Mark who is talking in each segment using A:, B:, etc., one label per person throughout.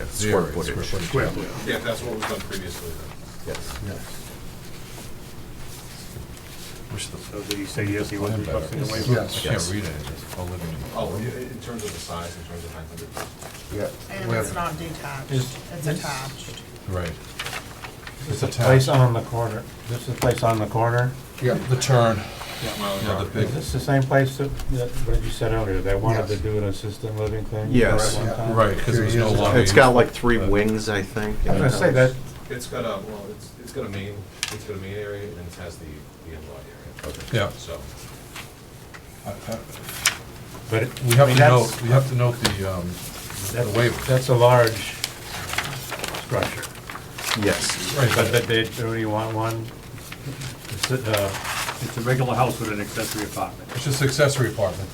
A: square footage.
B: Square footage.
C: Yeah, that's what was done previously then.
A: Yes.
D: Wish the
B: So did he say yes, he was
D: plan better.
B: requesting a waiver?
D: I
A: Yes.
D: can't read it, it's all living.
C: Oh, in in terms of the size, in terms of 900.
A: Yeah.
E: And
A: We
E: it's
A: have-
E: not detached,
F: Is-
E: it's attached.
D: Right. It's
F: Place
D: attached,
F: on the corner, this is the place on the corner?
A: Yeah,
D: the turn,
C: My own
D: you know, the
C: property.
D: big,
F: Is this the same place that, that- what you said earlier, they wanted to
A: Yes.
F: do an assisted living thing?
G: Yes.
F: at one time?
D: right, because it was no
A: It's
D: longer.
G: It's got like three
A: Uh,
G: wings, I think.
F: I was gonna say that,
C: It's got a, well, it's, it's got a main, it's got a main area and it has the, the in-law area.
D: Yeah.
C: So,
D: I- I-
F: but it-
D: We
F: I
D: have
F: mean,
D: to
F: that's,
D: note, we have to note the, um, the
F: that's,
D: waiver.
F: that's a large structure.
G: Yes.
D: Right,
F: But, but they, do you want one? It's, uh,
B: It's a regular house with an accessory apartment.
D: It's just accessory apartment,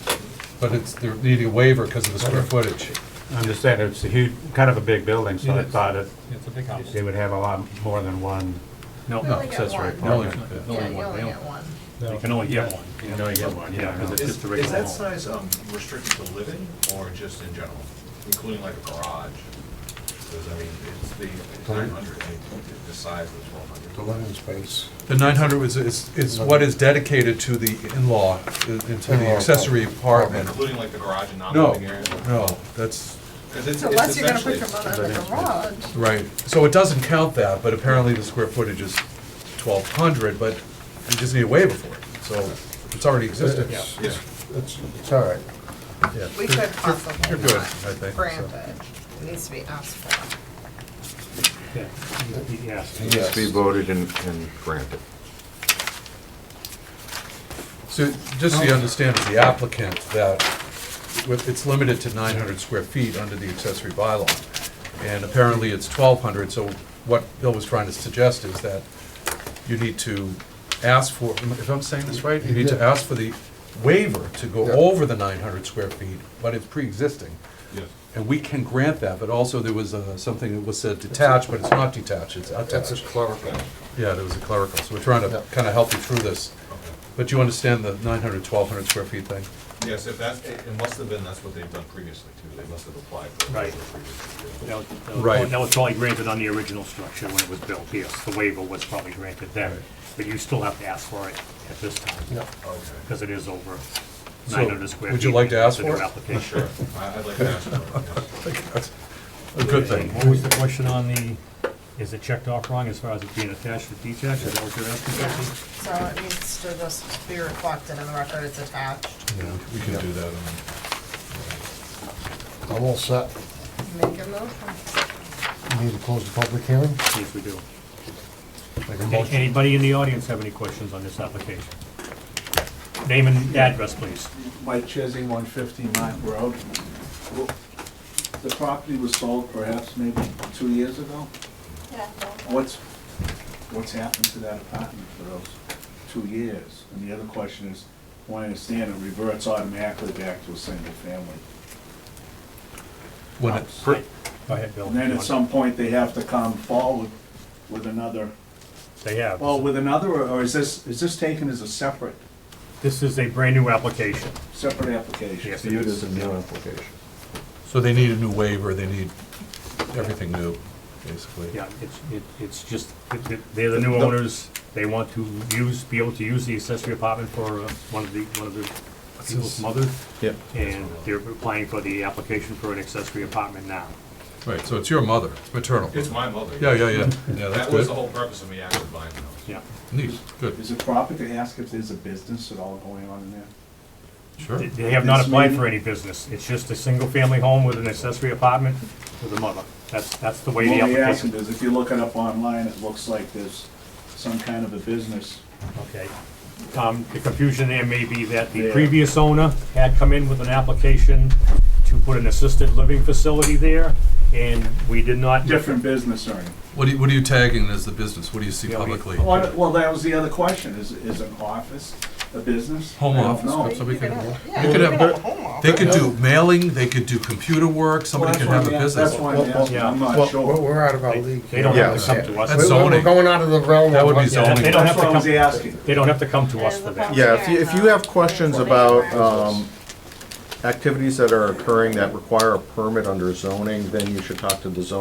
D: but it's, they're needing a waiver because of the square footage.
F: I'm just saying, it's a huge, kind of a big building, so
B: It
F: I
B: is.
F: thought it,
B: It's a big house.
F: they would have a lot more than one.
E: You
D: No,
E: only
D: it
E: get
F: says
E: one.
F: right
D: You only-
E: Yeah, you only get one.
B: You can only get one.
F: You can only get one, yeah,
B: Yeah, 'cause it's
C: is,
B: just a
C: is
B: regular
C: that
B: home.
C: size um, restricted to living or just in general, including like a garage? Because I mean, it's the it's 900, I mean, the size of
A: The
C: 1200.
A: living space.
D: The nine hundred is, is, is what is dedicated to the in-law, uh, into the
A: In-law
D: accessory apartment.
C: Including like the garage and
D: No,
C: non-living area?
D: no, that's,
C: 'Cause it's-
E: So
C: it's
E: unless you're gonna put
C: essentially-
E: your mother in the garage,
D: right, so it doesn't count that, but apparently the square footage is twelve hundred, but you just need a waiver for it, so it's already existed.
A: It's-
C: Yeah.
A: It's, it's all right.
D: Yeah.
E: we could possibly
D: you're good,
E: not
D: I think, so.
E: grant it. It needs to be asked for.
B: Yeah, he
G: It
B: asked.
G: needs to be
A: Yes.
G: voted and and granted.
D: So just so you understand, as the applicant, that with- it's limited to 900 square feet under the accessory bylaw. And apparently it's 1,200, so what Bill was trying to suggest is that you need to ask for, if I'm saying this right, you need to
A: Yeah.
D: ask for the waiver to go
A: Yeah.
D: over the 900 square feet, but it's pre-existing.
C: Yes.
D: And we can grant that, but also there was uh, something that was said detached, but it's not detached, it's
A: That's a
D: attached.
A: clerical.
D: Yeah, there was a clerical, so we're trying
A: Yeah.
D: to kind of help you through this.
C: Okay.
D: But you understand the 900, 1,200 square feet thing?
C: Yes, if that's, it it must have been, that's what they've done previously too, they must have applied for it.
B: Right.
C: previously, too.
B: That was- that was-
D: Right.
B: That was probably granted on the original structure when it was built, yes, the waiver was probably granted then, but you still have to ask for it at this time,
C: Okay,
B: because it is over
D: So,
B: nine hundred square feet.
D: would you like to ask
B: It's a new
D: for it?
B: application.
C: sure, I- I'd like to ask for it, yes.
D: That's a good thing.
B: What was the question on the, is it checked off wrong as far as it being attached or detached, is that what you're asking?
E: Yeah,
B: Betsy?
E: so it needs to just be reflected in the record it's attached.
D: Yeah, we can do that.
A: I'm all set.
D: Mm.
E: Make a motion.
A: We Need to close the public hearing?
B: Yes, we do.
A: Make a
B: A-
A: motion.
B: Anybody in the audience have any questions on this application? Name and address, please.
H: Mike Chesney, 150 Mott Road. Well, The property was sold perhaps maybe two years ago. What's, what's happened to that apartment for those two years? And the other question is, when I understand, it reverts automatically back to a single family.
D: When it,
B: Go ahead, Bill.
H: And then at some point, they have to come forward with another,
B: They have.
H: well, with another, or- or is this, is this taken as a separate,
B: This is a brand-new application.
H: separate application?
B: Yes, it
G: Viewed
B: is.
G: as a new application.
D: so they need a new waiver, they need everything new, basically.
B: Yeah, it's, it- it's just, it- it- they're the new owners, they want to use, be able to use the accessory apartment for uh, one of the, one of the people's
D: this?
B: mothers,
G: Yep.
B: and they're applying for the application for an accessory apartment now.
D: Right, so it's your mother, it's maternal.
C: It's my mother.
D: Yeah, yeah, yeah, yeah, that's
C: That was
D: good.
C: the whole purpose of me actually buying the house.
B: Yeah.
D: Neat, good,
H: Is it proper to ask if there's a business at all going on in there?
D: sure.
B: They- They have not
H: This
B: applied
H: meeting?
B: for any business. It's just a single-family home with an accessory apartment with a mother. That's, that's the way the
H: What we asked
B: application.
H: him is, if you look it up online, it looks like there's some kind of a business.
B: Okay. Um, the confusion there may be that the
H: Yeah.
B: previous owner had come in with an application to put an assisted living facility there, and we did not.
H: Different business owner.
D: What do you, what are you tagging as the business, what do you see
B: Yeah, we-
D: publicly?
H: Well, well, that was the other question, is, is an office a business?
D: Home
H: I don't
D: office,
H: know.
D: so we can,
E: Yeah,
D: they could
E: you
D: have,
E: a home
D: they
E: office.
D: could do mailing, they could do computer work,
H: Well,
D: somebody
H: that's
D: could
H: why
D: have a
H: I'm a-
D: business.
H: That's why I'm asking, I'm
A: Well,
H: not
A: we're-
H: sure.
A: We're out of our
B: They-
A: league.
B: They don't have to come to us.
D: That's
A: We're- We're
D: zoning.
A: going out of the realm of.
D: That would be
A: what-
D: zoning.
B: They don't
H: That's
B: have
H: why
B: to
H: I was
B: come,
H: asking.
B: they don't have to come to us for that.
G: Yeah, if you, if you have questions about, um, activities that are occurring that require a permit under zoning, then you should talk to the zoning